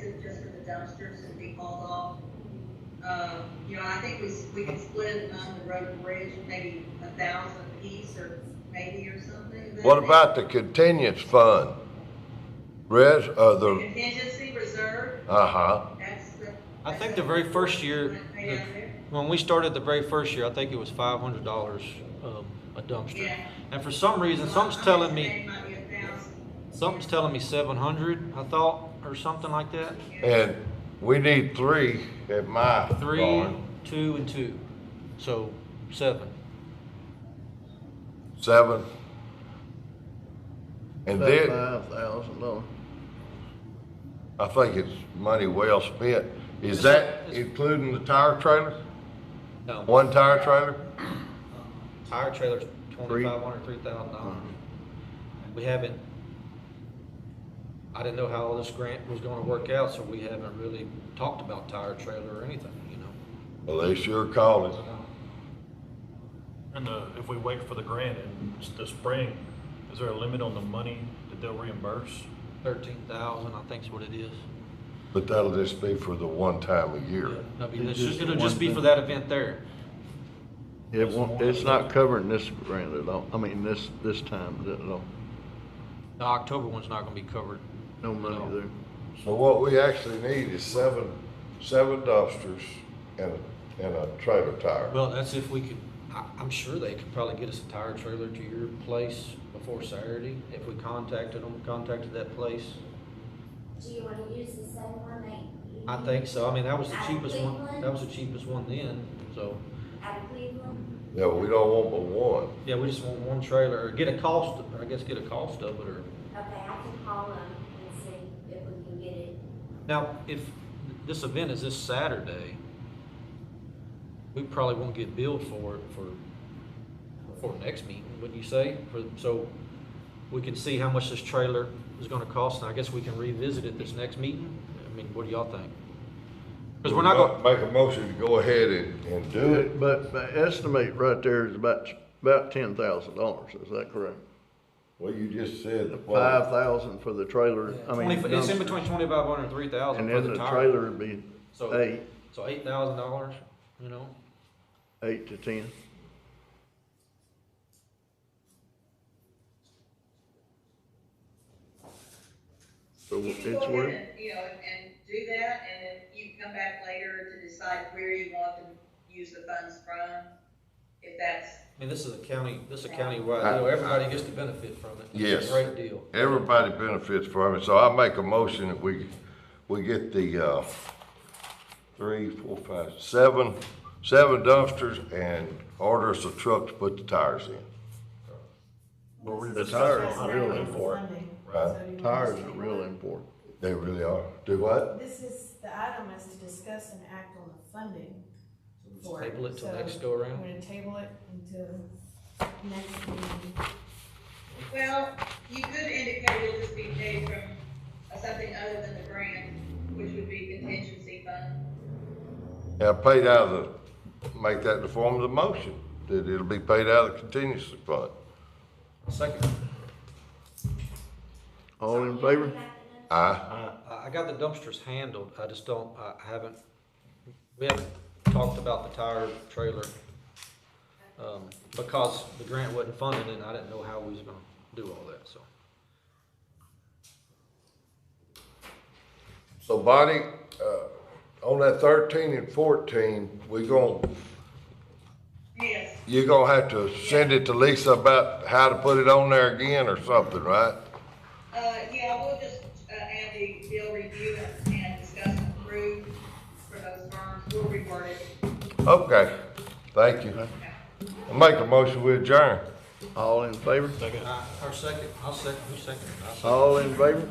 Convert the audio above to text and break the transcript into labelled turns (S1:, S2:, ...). S1: the dumpsters and be hauled off. Uh, you know, I think we, s- we could split it on the road and bridge, maybe a thousand piece or maybe or something.
S2: What about the continuance fund? Res, uh, the,
S1: Contingency reserve,
S2: uh-huh,
S1: that's the.
S3: I
S1: that's
S3: think
S1: the-
S3: the very first year,
S1: Right there.
S3: when we started the very first year, I think it was five hundred dollars, um, a dumpster.
S1: Yeah.
S3: And for some reason, something's
S1: I'm
S3: telling me,
S1: estimating might be a thousand.
S3: something's telling me seven hundred, I thought, or something like that.
S2: and we need three at my
S3: Three,
S2: barn.
S3: two, and two, so seven.
S2: Seven. And then,
S4: Five thousand dollars.
S2: I think it's money well spent. Is
S3: It's-
S2: that
S3: it's-
S2: including the tire trailer?
S3: No,
S2: One tire trailer?
S3: tire trailer's twenty-five hundred, three thousand dollars. We haven't, I didn't know how all this grant was gonna work out, so we haven't really talked about tire trailer or anything, you know?
S2: Well, they sure call it.
S5: And the, if we wait for the grant in s- the spring, is there a limit on the money that they'll reimburse?
S3: Thirteen thousand, I think's what it is.
S2: But that'll just be for the one time a year.
S3: That'll be-
S4: It's
S3: it's just-
S4: just the
S3: It'll just
S4: one
S3: be
S4: thing.
S3: for that event there.
S4: It won't, it's not covering this grant at all, I mean, this, this time at all,
S3: The October one's not gonna be covered.
S4: no money there.
S2: So what we actually need is seven, seven dumpsters and, a- and a trailer tire.
S3: Well, that's if we could, I, I'm sure they could probably get us a tire trailer to your place before Saturday, if we contacted them, contacted that place.
S6: Do you wanna use the same one E that?
S3: I
S6: you
S3: think so, I mean, that was the
S6: Out of
S3: cheapest one,
S6: Cleveland?
S3: that was the cheapest one then, so.
S6: used Out of Cleveland?
S2: Yeah, we don't want but one.
S3: Yeah, we just want one trailer, or get a cost, or I guess get a cost of it, or.
S6: Okay, I can call them and see if we can get it.
S3: Now, if this event is this Saturday, we probably won't get billed for it for, for next meeting, wouldn't you say? For, so we can see how much this trailer is gonna cost, and I guess we can revisit it this next meeting? I mean, what do y'all think? Cause we're not gonna,
S2: Make a motion to go ahead and, and do it.
S4: But my estimate right there is about, about ten thousand dollars, is that correct?
S2: Well, you just said the
S4: Five thousand for the trailer, I mean.
S3: 20 it's in
S4: dumpster.
S3: between twenty-five hundred and three thousand
S4: And
S3: for
S4: then
S3: the
S4: the
S3: tire.
S4: trailer would be
S3: So-
S4: eight,
S3: So eight thousand dollars, you know?
S4: eight to ten. So
S1: You can go
S4: it's
S1: ahead
S4: worth.
S1: and, You know, and do that, and then you can come back later to decide where you want to use the funds from, if that's,
S3: I mean, this is a county, this is a county-wide deal, everybody gets to benefit from it. It's
S2: Yes.
S3: a great deal.
S2: Everybody benefits from it, so I make a motion that we, we get the, uh, three, four, five, seven, seven dumpsters and order us a truck to put the tires in.
S4: Well, we- The tires
S7: That's
S4: are real
S7: Saturday,
S4: important.
S7: Sunday.
S2: Right.
S7: So you wanna
S4: Tires
S7: say
S4: are real
S7: what?
S4: important.
S2: They really are. Do what?
S7: This is, the item is to discuss and act on the funding for it.
S3: Table it till
S7: So
S3: next go around.
S7: I'm gonna table it until next meeting.
S1: well, you could indicate it'll just be paid from something other than the grant, which would be contingency fund.
S2: Yeah, paid out of the, make that the form of the motion, that it'll be paid out of the contingency fund.
S3: Second,
S4: All in
S6: So you
S4: favor?
S6: want that to know?
S2: Aye.
S3: I, I got the dumpsters handled, I just don't, I I haven't, we haven't talked about the tire trailer. Um, because the grant wasn't funded and I didn't know how we was gonna do all that, so.
S2: So Bonnie, uh, on that thirteen and fourteen, we gonna,
S1: Yes,
S2: you're gonna have to send it to Lisa about how to put it on there again or something, right?
S1: uh, yeah, we'll just, uh, add the bill review and discuss and approve for those firms, we'll reword it.
S2: Okay, thank you. I make a motion we adjourn.
S4: All in favor?
S3: Uh, Our second, I'll second, who's second? I'll second.
S4: All in favor?